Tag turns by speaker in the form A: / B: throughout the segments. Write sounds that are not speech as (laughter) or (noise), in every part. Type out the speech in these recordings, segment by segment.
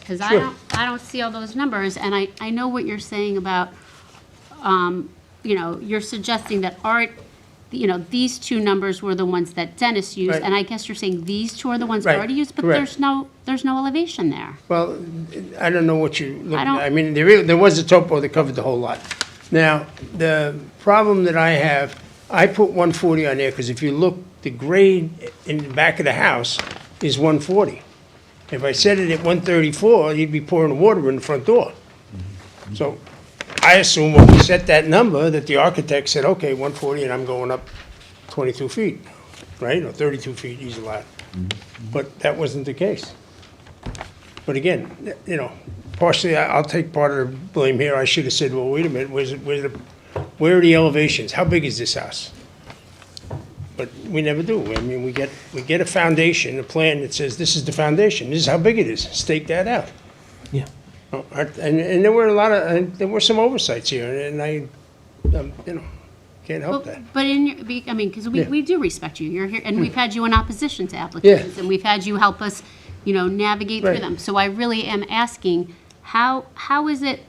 A: because I
B: Sure.
A: don't, I don't see all those numbers, and I, I know what you're saying about, um, you know, you're suggesting that art, you know, these two numbers were the ones that Dennis used,
B: Right.
A: and I guess you're saying these two are the ones
B: Right,
A: already used, but
B: correct.
A: there's no, there's no elevation there.
B: Well, I don't know what you, look-
A: I don't-
B: I mean, there, is- there was a topo that covered the whole lot. Now, the problem that I have, I put one forty on there, because if you look, the grade in the back of the house is one forty. If I set it at one thirty-four, you'd be pouring water in the front door. So I assume when we set that number, that the architect said, okay, one forty, and I'm going up twenty-two feet, right, or thirty-two feet, he's allowed. But that wasn't the case. But again, th- you know, partially, I- I'll take part of the blame here. I should have said, well, wait a minute, where's, it- where's the, where are the elevations? How big is this house? But we never do. I mean, we get, we get a foundation, a plan that says, this is the foundation, this is how big it is, stake that out.
C: Yeah.
B: Oh, I- And, and there were a lot of, and there were some oversights here, and I, um, you know, can't help that.
A: But but in, your be- I mean, because we,
B: Yeah. Hmm.
A: we do respect you, you're here, and we've had you in opposition to applications, and we've had you help us, you know, navigate through
B: Right.
A: them. So I really am asking, how, how is it,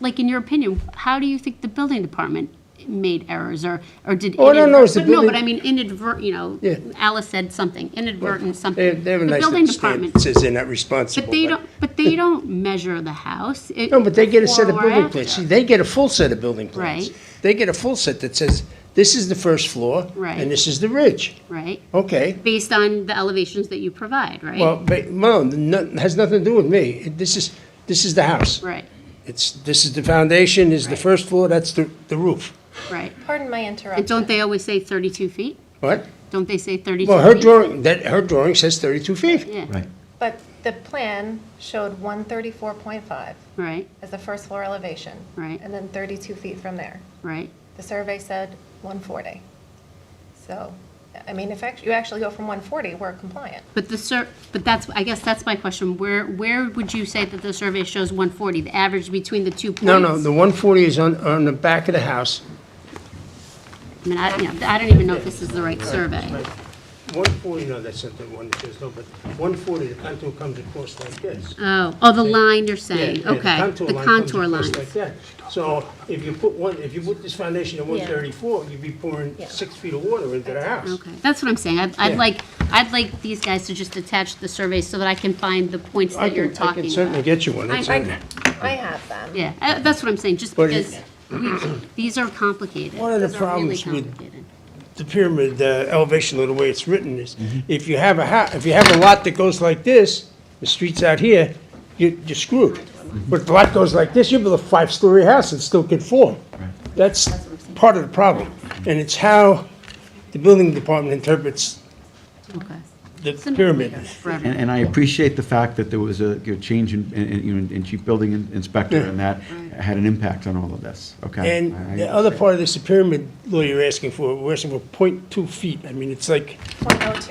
A: like, in your opinion, how do you think the building department made errors, or, or did?
B: Oh, I don't know, it's the
A: inadvert- but No,
B: building-
A: but I mean inadvert, you know,
B: Yeah.
A: Alice said something, inadvertent something.
B: They they have a
A: The
B: nice
A: building
B: little stamp
A: department.
B: that says they're not responsible.
A: But they don't, but they don't measure the house. it-
B: No, but they get a set of
A: before or
B: building plans.
A: after.
B: See, they get a full set of building plans.
A: Right.
B: They get a full set that says, this is the first floor.
A: Right.
B: And this is the ridge.
A: Right,
B: Okay.
A: based on the elevations that you provide, right?
B: Well, but, no, no, has nothing to do with me. It- This is, this is the house.
A: Right,
B: It's, this is the foundation, this is the
A: Right.
B: first floor, that's the, the roof.
A: right.
D: Pardon my
A: And
D: interruption.
A: don't they always say 32 feet?
B: What?
A: Don't they say 32 feet?
B: Well, her drawing, that, her drawing says thirty-two feet.
A: Yeah,
C: Right.
D: But the plan showed 134.5
A: right,
D: as the first floor elevation.
A: Right.
D: And then 32 feet from there.
A: right.
D: The survey said 140. So, I mean, if act- you actually go from 140, we're compliant.
A: But the sur, but that's, I guess that's my question. Where, where would you say that the survey shows 140, the average between the two points?
B: No, no, the one forty is on, on the back of the house.
A: I mean, I, you know, I don't even know if this is the right survey.
B: One forty, no, that's not the one that says, no, but one forty, the contour comes across like this.
A: Oh, oh, the line you're saying,
B: Yeah, yeah,
A: okay. The contour
B: comes
A: lines.
B: across like that. So if you put one, if you put this foundation at one thirty-four, you'd be pouring six feet of water into the house.
A: Okay, that's what I'm saying. I'd, I'd
B: Yeah.
A: like, I'd like these guys to just attach the survey so that I can find the points
B: I
A: that you're
B: can, I
A: talking
B: can
A: about.
B: certainly get you one.
A: I-
B: It's
A: I-
B: in there.
D: I have them.
A: Yeah, uh, that's what I'm saying, just
B: But it-
A: because we- these are complicated.
B: One of the
A: Those are really
B: problems with-
A: complicated.
B: The pyramid, the elevation, the way it's written is, if you have a ha, if you have a lot that goes like this, the street's out here, you, you're screwed. But if the lot goes like this, you build a five-story house and still can form. That's part of the problem. And it's how the building department interprets
A: Okay.
B: the
A: It's an-
B: pyramid.
A: Forever.
C: And, and I appreciate the fact that there was a you know, change in, in- in, you know, in chief building in- inspector, and that had an impact on all of this, okay? I-
B: And the other part of this, the pyramid law you're asking for, we're asking for point two feet. I mean, it's like,
D: 0.02.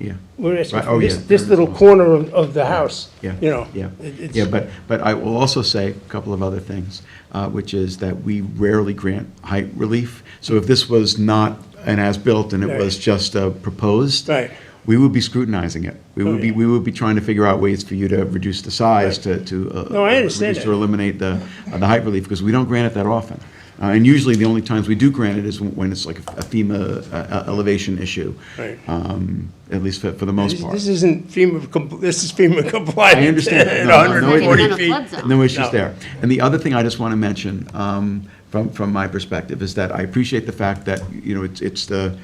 C: Yeah,
B: we're asking
C: Right,
B: for
C: oh,
B: this,
C: yeah,
B: this
C: pyramid
B: little
C: law.
B: corner of, of the house,
C: yeah.
B: you know?
C: Yeah,
B: It- it's-
C: yeah, but, but I will also say a couple of other things, uh, which is that we rarely grant height relief. So if this was not an as-built and it
B: Right.
C: was just uh, proposed.
B: Right. Oh,
C: We would be scrutinizing it. We would be,
B: yeah.
C: we would be trying to figure out ways for you to reduce the size,
B: Right.
C: to, to. uh,
B: No, I understand
C: reduce
B: that.
C: Or eliminate the, uh, the height relief, because we don't grant it that often. Uh, And usually, the only times we do grant it is when- when it's like a FEMA uh, uh, elevation issue.
B: Right.
C: Um, At least for, for the most
B: This
C: part.
B: this isn't FEMA, compl- this is FEMA compliant.
C: I understand.
B: at (laughs)
C: No, no, no,
A: it
B: 140
A: is.
B: feet.
A: Flood zone.
C: No issues
B: No.
C: there. And the other thing I just want to mention, um, from, from my perspective, is that I appreciate the fact that, you know, it's, it's the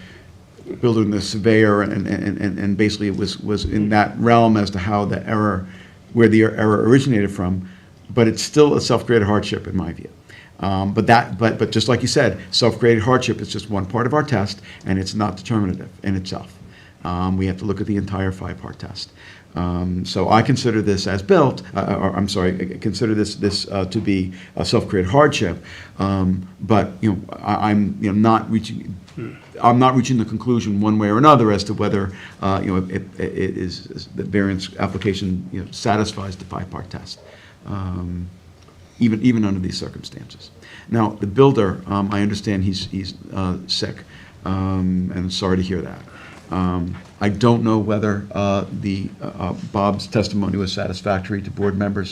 C: builder and the surveyor, and, and, and, and basically it was, was in that realm as to how the error, where the error originated from, but it's still a self-created hardship, in my view. Um, But that, but, but just like you said, self-created hardship is just one part of our test, and it's not determinative in itself. Um, We have to look at the entire five-part test. Um, So I consider this as built, uh, or, I'm sorry, I consider this, this uh, to be a self-created hardship. Um, But, you know, I- I'm, you know, not reaching, I'm not reaching the conclusion one way or another as to whether, uh, you know, it it- it is, is the variance application, you know, satisfies the five-part test. Um, even, even under these circumstances. Now, the builder, um, I understand he's, he's, uh, sick, um, and sorry to hear that. Um, I don't know whether uh, the, uh, uh, Bob's testimony was satisfactory to board members